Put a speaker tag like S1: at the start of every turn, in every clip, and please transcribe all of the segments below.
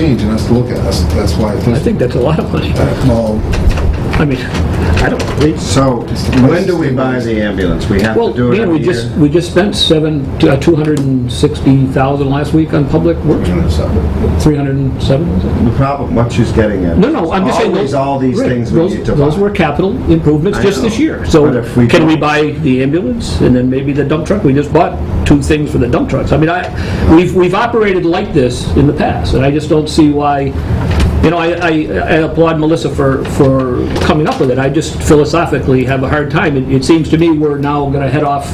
S1: page and us to look at. That's, that's why. it's
S2: I
S1: listed.
S2: think that's a lot of money.
S1: Well,
S2: I mean, I don't, we,
S3: So, when do we buy the ambulance? We have
S2: well,
S3: to do it
S2: man, we
S3: every
S2: just,
S3: year?
S2: we just spent seven, uh, 260,000 last week on public works,
S1: so-
S2: 307, was it?
S3: The problem, what she's getting at.
S2: No, no, I'm just saying.
S3: Always
S2: those-
S3: all these
S2: right,
S3: things we
S2: those-
S3: need to
S2: Those were
S3: buy.
S2: capital improvements
S3: I
S2: just
S3: know.
S2: this year.
S3: But
S2: So
S3: if we
S2: can we
S3: don't-
S2: buy the ambulance and then maybe the dump truck? We just bought two things for the dump trucks. I mean, I, we've, we've operated like this in the past and I just don't see why, you know, I, I I applaud Melissa for, for coming up with it. I just philosophically have a hard time. It, it seems to me we're now gonna head off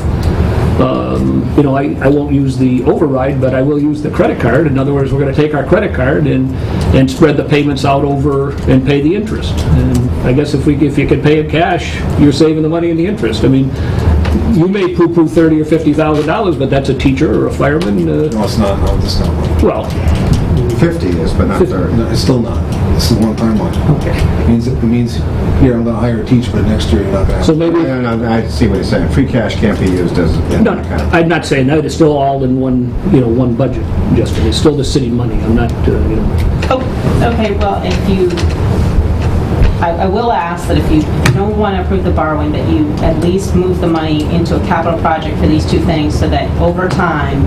S2: um, you know, I, I won't use the override, but I will use the credit card. In other words, we're gonna take our credit card and, and spread the payments out over and pay the interest. And I guess if we, if you can pay in cash, you're saving the money in the interest. I mean, you may poo-poo thirty or fifty thousand dollars, but that's a teacher or a fireman, uh,
S1: No, it's not, no, it's not. one.
S2: well,
S3: 50 is, but not 30.
S1: No, it's still not. It's the one-time one.
S2: Okay.
S1: It means, it means, here, I'm gonna hire a teacher, but next year you're not gonna have.
S2: so maybe,
S3: No, no, no, I see what he's saying. Free cash can't be used as.
S2: no, I'm not saying that, it's still all in one, you know, one budget, Justin. It's still the city money. I'm not, uh, you know,
S4: Oh, Okay, well, if you, I, I will ask that if you don't want to approve the borrowing, that you at least move the money into a capital project for these two things, so that over time,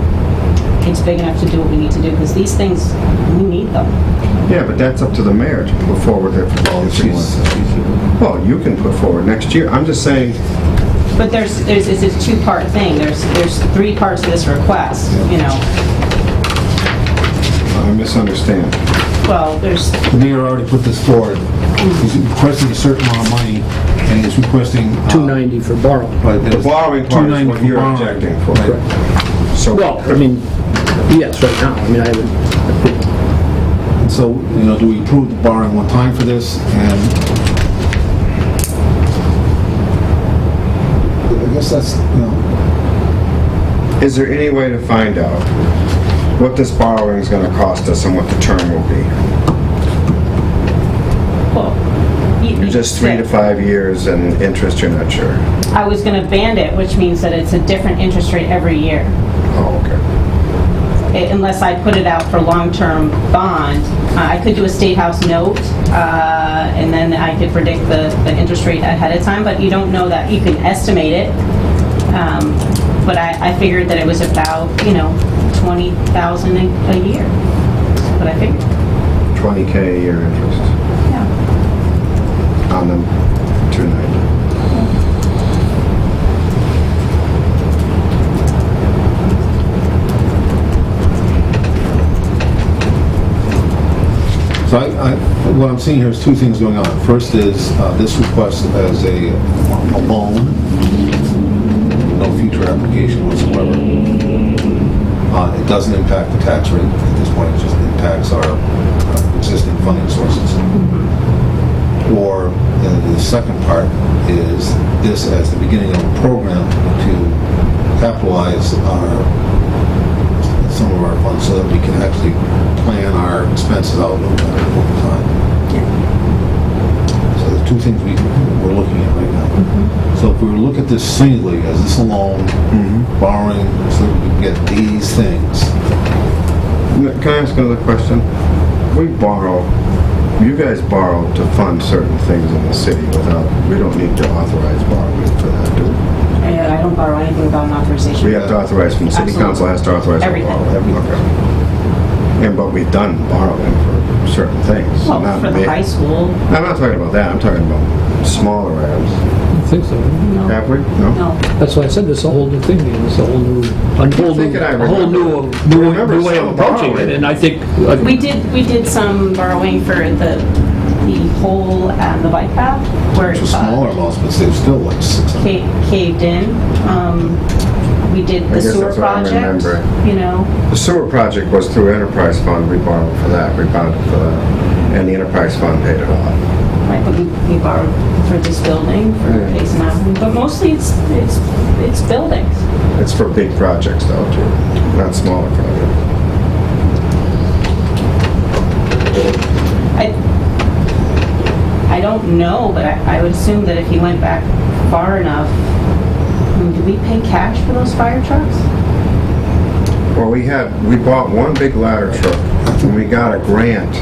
S4: it's big enough to do what we need to do, because these things, we need them.
S3: Yeah, but that's up to the mayor to put forward their
S1: Well,
S3: proposal.
S1: she's- she's-
S3: Well, you can put forward next year. I'm just saying,
S4: But there's, there's, it's a two-part thing, there's, there's three parts to this request, you know.
S3: I misunderstand.
S4: Well, there's,
S1: The mayor already put this forward. He's requesting a certain amount of money, and he's requesting. uh,
S2: two ninety for borrowing.
S1: but there's-
S3: The borrowing part is
S1: 290
S3: what you're
S1: borrowing.
S3: objecting for.
S1: Right.
S3: So,
S2: Well, I mean, yes, right now, I mean, I haven't,
S1: And So, you know, do we approve the borrowing one time for this, and... I guess that's, you know,
S3: is there any way to find out what this borrowing is going to cost us and what the term will be?
S4: well. you-
S3: Just three to five years and interest, you're not sure?
S4: I was going to band it, which means that it's a different interest rate every year.
S3: Oh, okay.
S4: unless I put it out for long-term bond. Uh, I could do a state house note, uh, and then I could predict the, the interest rate ahead of time, but you don't know that, you can estimate it. Um, But I, I figured that it was about, you know, 20,000 a a year, That's what I figured.
S3: 20K a year interest
S4: Yeah.
S3: on the 290.
S1: so I, I- what I'm seeing here is two things going on. First is uh, this request as a a loan, no future application whatsoever. Uh, It doesn't impact the tax rate at this point, it just impacts our uh, existing funding sources. Or uh, the second part is this as the beginning of a program to capitalize our some of our funds so that we can actually plan our expenses out a little better over time. So the two things we, we're looking at right now. So if we were to look at this singly, as this alone, borrowing, so that we can get these things,
S3: N- Can I ask another question? We borrow, you guys borrow to fund certain things in the city without, we don't need to authorize borrowing for that, do we?
S4: And I don't borrow anything without an
S3: We
S4: authorization.
S3: have to authorize, from the city
S4: Absolutely.
S3: council has to authorize. our
S4: Everything.
S3: borrowing. Okay. And, but we've done borrowing for certain things.
S4: Well,
S3: not
S4: for the
S3: big-
S4: high school,
S3: I'm not talking about that, I'm talking about smaller items.
S2: I think so.
S4: no,
S3: Have we? No?
S4: no.
S2: That's why I said this is a whole new thing, you know, it's a whole new, a whole new,
S3: thinking I
S2: a whole new,
S3: remember.
S2: new
S3: Remember
S2: new way of
S3: some
S2: approaching it,
S3: borrowing.
S2: and I think, uh,
S4: We did, we did some borrowing for the, the hole at the bike path where.
S1: which was
S4: uh,
S1: smaller amounts, but they were still like six hundred.
S4: ca- caved in. Um, We did
S3: I
S4: the
S3: guess
S4: sewer
S3: that's what I'm
S4: project,
S3: remembering.
S4: you know,
S3: The sewer project was through enterprise fund, we borrowed for that, we bonded for that, and the enterprise fund paid it off.
S4: right, but we we borrowed for this building, for
S3: Yeah.
S4: Basin Mountain, but mostly it's, it's, it's buildings.
S3: It's for big projects though, too, not smaller projects.
S4: I, I don't know, but I I would assume that if he went back far enough, I mean, did we pay cash for those fire trucks?
S3: Well, we had, we bought one big ladder truck when we got a grant